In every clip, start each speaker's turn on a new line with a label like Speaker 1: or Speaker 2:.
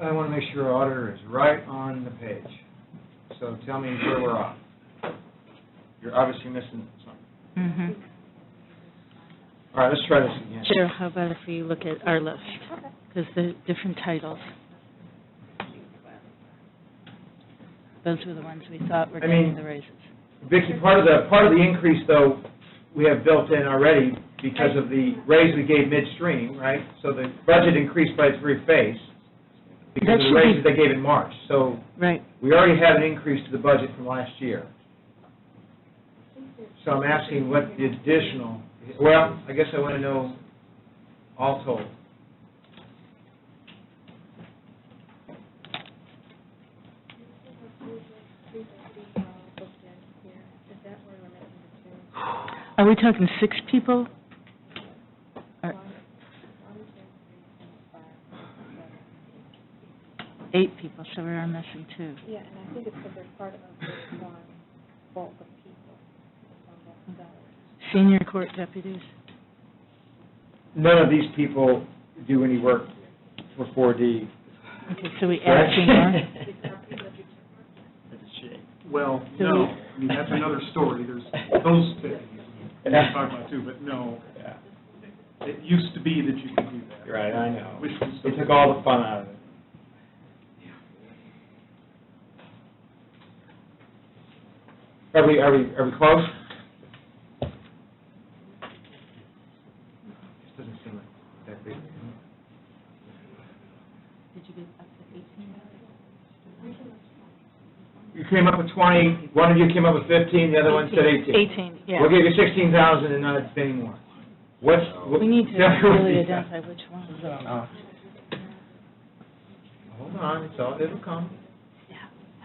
Speaker 1: I want to make sure our auditor is right on the page. So tell me where we're off. You're obviously missing something.
Speaker 2: hmm
Speaker 1: All right, let's try this again.
Speaker 2: Cheryl, how about if you look at our list? Because the different titles. Those were the ones we thought were
Speaker 1: I mean-
Speaker 2: getting the raises.
Speaker 1: Vicki, part of the, part of the increase, though, we have built in already because of the raise we gave midstream, right? So the budget increased by three phase because
Speaker 2: That
Speaker 1: of
Speaker 2: should
Speaker 1: the
Speaker 2: be-
Speaker 1: raises they gave in March. So
Speaker 2: Right.
Speaker 1: we already had an increase to the budget from last year. So I'm asking what the additional, well, I guess I want to know all told.
Speaker 2: Are we talking six people? Or- Eight people, so we are missing two.
Speaker 3: Yeah, and I think it's because they're part of this one bulk of people. on that salary.
Speaker 2: Senior court deputies?
Speaker 1: None of these people do any work for 4D.
Speaker 2: Okay, so we add two more?
Speaker 1: correct?
Speaker 4: Well,
Speaker 2: So
Speaker 4: no,
Speaker 2: we-
Speaker 4: I mean, that's another story, there's those things we can talk about too, but no,
Speaker 1: Yeah.
Speaker 4: it used to be that you could do that.
Speaker 1: Right, I know.
Speaker 4: Which was-
Speaker 1: It took all the fun out of it. Are we, are we, are we close? This doesn't seem like that big.
Speaker 2: Did you get up to eighteen?
Speaker 1: You came up with twenty, one of you came up with fifteen, the other one said eighteen.
Speaker 2: Eighteen, yeah.
Speaker 1: We'll give you sixteen thousand and not any more. What's? what-
Speaker 2: We need to
Speaker 1: Yeah, what
Speaker 2: really
Speaker 1: is that?
Speaker 2: identify which one.
Speaker 1: Oh. Hold on, it's all, it'll come.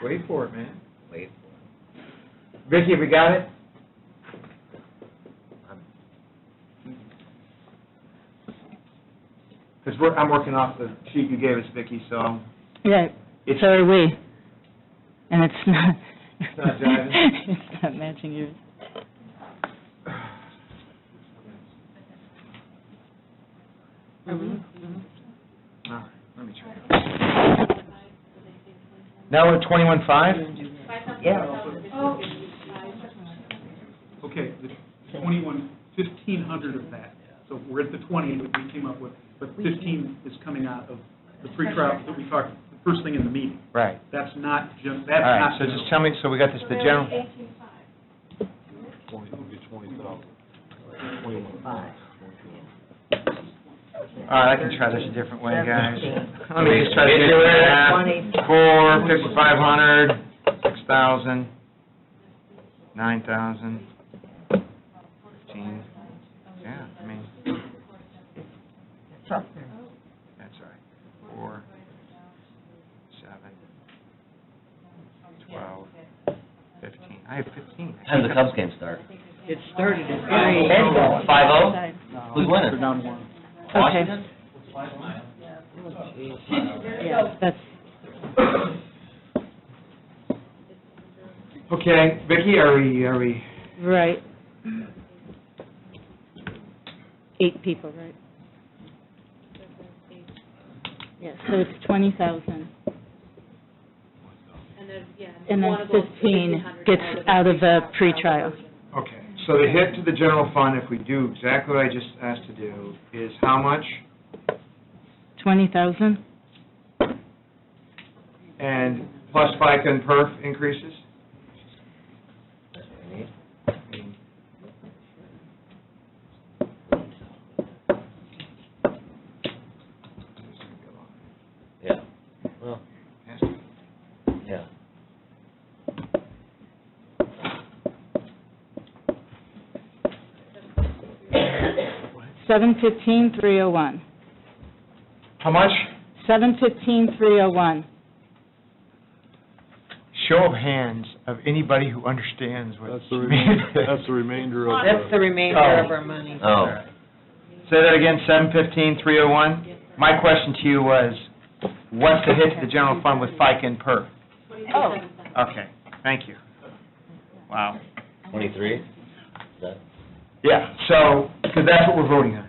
Speaker 1: Wait for it, man. Wait for it. Vicki, we got it? Because we're, I'm working off the sheet you gave us, Vicki, so
Speaker 2: Yeah,
Speaker 1: it's,
Speaker 2: so are we. And it's not. It's
Speaker 1: not jiving.
Speaker 2: It's not matching yours. Are
Speaker 1: Mm-hmm.
Speaker 2: we?
Speaker 1: all right, let me try. Now we're at twenty-one-five?
Speaker 4: Okay, the twenty-one, fifteen hundred of that, so we're at the twenty that we came up with, but fifteen is coming out of the pre-trial that we talked, the first thing in the meeting.
Speaker 1: Right.
Speaker 4: That's not just,
Speaker 1: All
Speaker 4: that's
Speaker 1: right,
Speaker 4: not.
Speaker 1: so just tell me, so we got this, the general,
Speaker 5: Twenty, it'll be twenty thousand, twenty-one thousand.
Speaker 1: all right, I can try this a different way, guys. Let me just try to do it. Four, fifty-five hundred, six thousand, nine thousand, fifteen, yeah, I mean. That's all right. Four, seven, twelve, fifteen, I have fifteen.
Speaker 6: Time the Cubs game start.
Speaker 7: It started at
Speaker 6: Five oh?
Speaker 2: Side.
Speaker 6: Who's
Speaker 4: They're
Speaker 6: winning?
Speaker 4: down one.
Speaker 2: Okay, yeah, that's,
Speaker 1: Okay, Vicki, are we, are we?
Speaker 2: right. Eight people, right? Yeah, so it's twenty thousand.
Speaker 3: And then, yeah.
Speaker 2: And then
Speaker 3: one of those
Speaker 2: 15
Speaker 3: 1,500
Speaker 2: gets out of the
Speaker 3: pre-trial.
Speaker 2: pretrial.
Speaker 1: Okay, so the hit to the general fund, if we do exactly what I just asked to do, is how much?
Speaker 2: Twenty thousand?
Speaker 1: And plus FICA and perf increases?
Speaker 6: Yeah, well, yeah.
Speaker 2: Seven fifteen, three oh one.
Speaker 1: How much?
Speaker 2: Seven fifteen, three oh one.
Speaker 1: Show of hands of anybody who understands what
Speaker 5: That's
Speaker 1: she
Speaker 5: the remainder,
Speaker 1: means.
Speaker 5: that's the remainder of the.
Speaker 7: That's the remainder of our money.
Speaker 6: Oh,
Speaker 1: Say that again, seven fifteen, three oh one? My question to you was, what's the hit to the general fund with FICA and perf?
Speaker 7: Oh.
Speaker 1: Okay, thank you. Wow.
Speaker 6: twenty-three? Is that?
Speaker 1: Yeah, so, because that's what we're voting on.